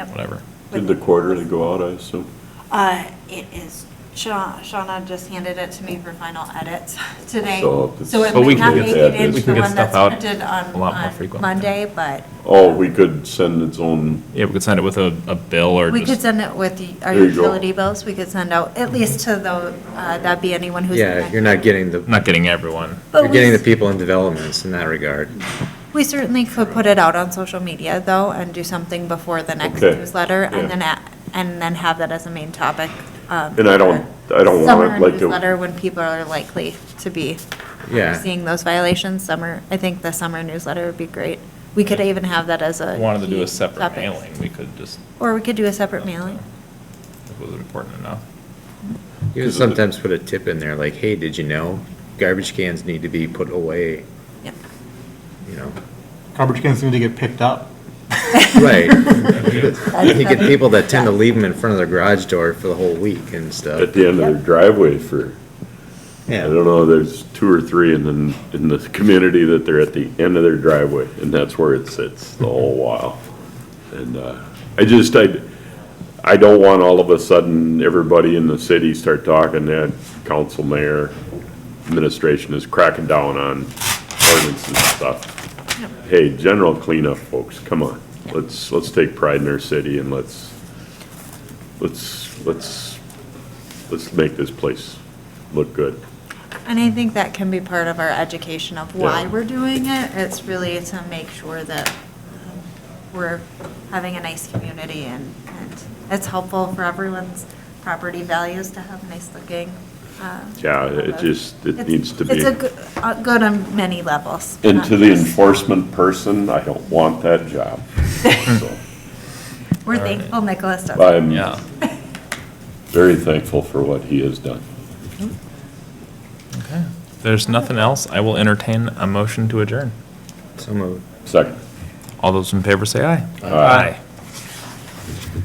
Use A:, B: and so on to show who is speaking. A: whatever.
B: Did the quarterly go out, I assume?
C: Uh, It is, Shaw- Shauna just handed it to me for final edits today.
B: So it's-
C: So it
A: But Oh, we
C: might not
A: can get
C: make
B: that
C: it
B: in.
C: into
B: We
C: the
B: can
A: get
C: one that's
A: stuff out
C: printed
A: a lot
C: on,
A: more frequently.
C: on Monday, but
B: Oh, we could send its own,
A: Yeah, we could send it with a, a bill or
C: we could
A: just,
C: send it with the- our
B: There you go.
C: utility bills. We could send out, at least to the, uh, that'd be anyone who's.
D: Yeah, you're not getting the,
A: not getting everyone.
C: But
D: you're
C: we
D: getting the
C: s-
D: people in developments in that regard.
C: We certainly could put it out on social media, though, and do something before the next
B: Okay.
C: newsletter,
B: Yeah.
C: and then, a- and then have that as a main topic. um,
B: And I don't-
C: for
B: I don't want it like
C: Summer
B: a-
C: newsletter, when people are likely to be
D: Yeah.
C: seeing those violations, summer, I think the summer newsletter would be great. We could even have that as a.
A: If we Wanted to do
C: key
A: a separate
C: topic.
A: mailing, we could just.
C: Or we could do a separate mailing.
A: If it was important enough.
D: You would sometimes put a tip in there, like, hey, did you know garbage cans need to be put away,
C: Yep.
D: you know?
E: Garbage cans need to get picked up.
D: Right. You get people that tend to leave them in front of their garage door for the whole week and
B: at
D: stuff.
B: the end of their driveway for, I
D: Yeah,
B: don't know, there's two or three in the, in the community that they're at the end of their driveway, and that's where it sits the whole while. And, uh, I just, I, I don't want all of a sudden, everybody in the city start talking that council, mayor, administration is cracking down on ordinance and stuff. Hey, general cleanup, folks, come on. Let's, let's take pride in our city and let's, let's, let's, let's make this place look good.
C: And I think that can be part of our education of why
B: Yeah.
C: we're doing it. It's really to make sure that um, we're having a nice community and, and it's helpful for everyone's property values to have nice looking. uh,
B: Yeah, it just, it
C: It's-
B: needs to be.
C: It's a good, uh, good on many levels. Um,
B: And
C: not
B: to the
C: just-
B: enforcement person, I don't want that job. So,
C: We're thankful Nicholas does. it.
B: I'm
A: Yeah.
B: very thankful for what he has done.
A: Okay. If there's nothing else, I will entertain a motion to adjourn.
D: so moved.
B: Second.
A: All those in favor say aye.
B: Aye.